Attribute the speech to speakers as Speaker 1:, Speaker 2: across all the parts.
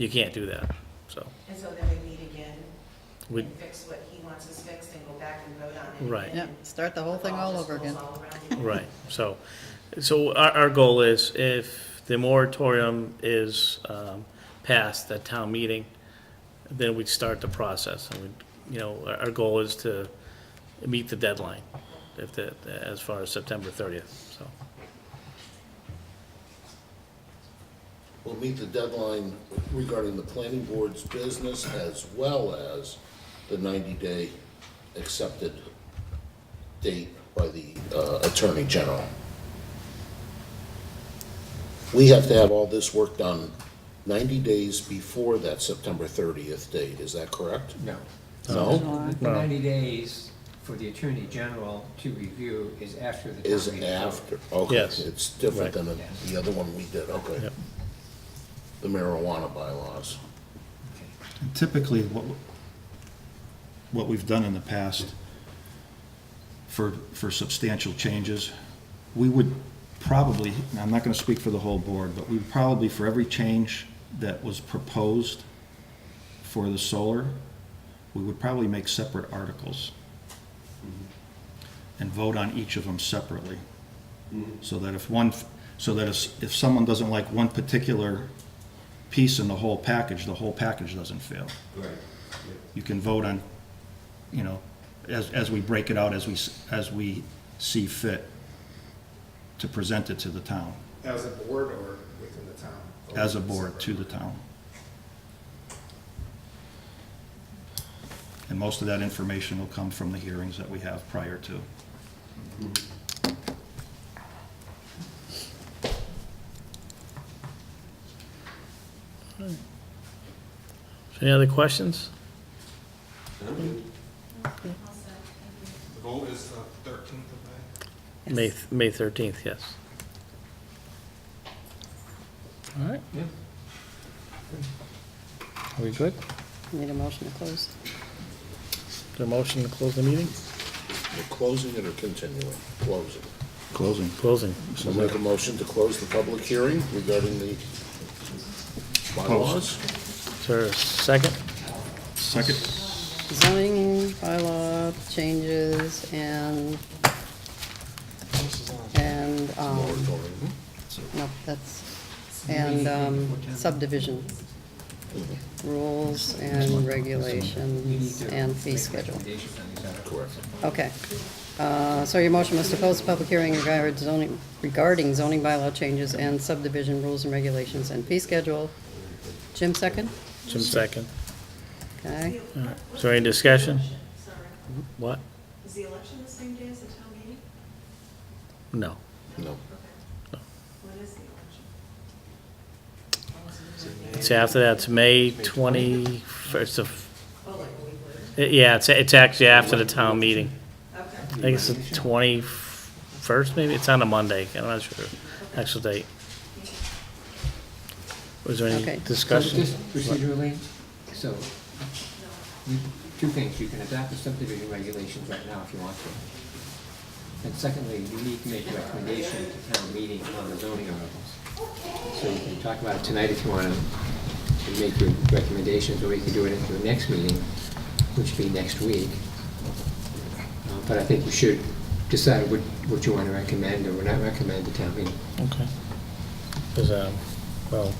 Speaker 1: you can't do that, so,
Speaker 2: And so then we meet again
Speaker 1: we,
Speaker 2: and fix what he wants us fixed and go back and vote on it.
Speaker 1: Right.
Speaker 2: again.
Speaker 3: Yeah, start the whole thing all over again.
Speaker 2: All around again.
Speaker 1: right, so, so our, our goal is if the moratorium is, um, passed at town meeting, then we'd start the process, and we, you know, our, our goal is to meet the deadline, if the, as far as September thirtieth, so.
Speaker 4: will meet the deadline regarding the planning board's business as well as the 90-day accepted date by the uh, Attorney General. We have to have all this work done 90 days before that September 30th date, is that correct?
Speaker 5: No.
Speaker 4: No?
Speaker 5: The ninety days for the Attorney General to review is after the. town
Speaker 4: Is
Speaker 5: meeting.
Speaker 4: after, okay.
Speaker 1: Yes.
Speaker 4: It's different than
Speaker 5: Right.
Speaker 4: the other one we did, okay.
Speaker 1: Yep.
Speaker 4: The marijuana bylaws.
Speaker 5: Okay.
Speaker 6: Typically, what, what we've done in the past for, for substantial changes, we would probably, and I'm not gonna speak for the whole board, but we would probably, for every change that was proposed for the solar, we would probably make separate articles and vote on each of them separately. So that if one, so that if, if someone doesn't like one particular piece in the whole package, the whole package doesn't fail.
Speaker 7: Right.
Speaker 6: You can vote on, you know, as, as we break it out, as we, s- as we see fit to present it to the town,
Speaker 7: As a board or within the town?
Speaker 6: as a board to the town. And most of that information will come from the hearings that we have prior to.
Speaker 1: Any other questions?
Speaker 7: The vote is the thirteenth of May?
Speaker 1: May, May thirteenth, yes. All right.
Speaker 5: Yeah.
Speaker 1: Are we good?
Speaker 3: Need a motion to close.
Speaker 1: The motion to close the meeting?
Speaker 4: We're closing it or continuing? Closing.
Speaker 6: Closing.
Speaker 1: Closing.
Speaker 4: So make a motion to close the public hearing regarding the bylaws.
Speaker 1: Is there a second?
Speaker 6: Second.
Speaker 3: Zoning bylaw changes and, and, um,
Speaker 4: Moratorium.
Speaker 3: no, that's, and um, subdivision rules and
Speaker 5: We need
Speaker 3: regulations
Speaker 5: to
Speaker 3: and fee
Speaker 5: make
Speaker 3: schedule.
Speaker 5: recommendations on these articles.
Speaker 4: Correct.
Speaker 3: Okay. Uh, So your motion was to close the public hearing regarding zoning, regarding zoning bylaw changes and subdivision rules and regulations and fee schedule. Jim second?
Speaker 1: Jim second.
Speaker 3: Okay.
Speaker 1: All right. Is there any discussion?
Speaker 2: Sorry,
Speaker 1: What?
Speaker 2: is the election the same day as the town meeting?
Speaker 1: No.
Speaker 4: No.
Speaker 2: What is the election?
Speaker 1: It's after that, it's May twenty-first of,
Speaker 2: Oh, like a week later.
Speaker 1: yeah, it's, it's actually after the town meeting.
Speaker 2: Okay.
Speaker 1: I think it's the twenty-first, maybe? It's on a Monday. I'm not sure. Actual date. Was there
Speaker 3: Okay.
Speaker 1: any
Speaker 3: So
Speaker 5: So
Speaker 1: discussion?
Speaker 5: just procedurally, so, you- two things, you can adopt the subdivision regulations right now if you want to. And secondly, you need to make a recommendation to town meeting on the zoning articles. So you can talk about it tonight if you want to, make your recommendations, or we can do it at your next meeting, which will be next week. Uh, But I think you should decide what, what you want to recommend or not recommend to town meeting.
Speaker 1: Okay. Is, um, well,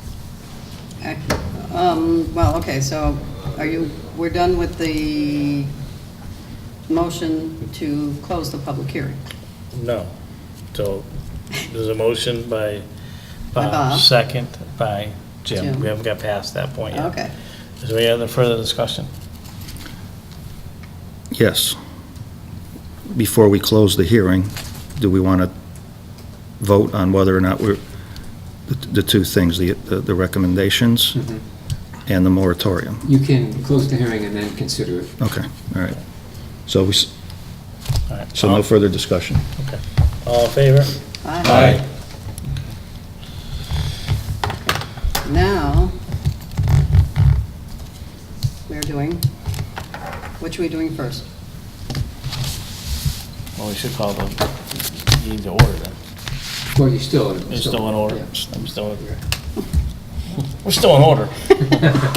Speaker 3: Um, Well, okay, so are you, we're done with the motion to close the public hearing.
Speaker 1: No. So there's a motion by
Speaker 3: By
Speaker 1: Bob,
Speaker 3: Bob.
Speaker 1: second by Jim.
Speaker 3: Jim.
Speaker 1: We haven't got past that point yet.
Speaker 3: Okay.
Speaker 1: Is there any other further discussion?
Speaker 6: Yes. Before we close the hearing, do we want to vote on whether or not we're, the the two things, the the recommendations and the moratorium?
Speaker 5: You can close the hearing and then consider it.
Speaker 6: Okay, all right. So we, s-
Speaker 1: All right.
Speaker 6: so no further discussion.
Speaker 1: All in favor?
Speaker 3: Aye. Now, we're doing, which are we doing first?
Speaker 1: Well, we should call the, you need to order them.
Speaker 5: Well, you're still.
Speaker 1: They're still in order.
Speaker 5: Yeah.
Speaker 1: I'm still, We're still in order.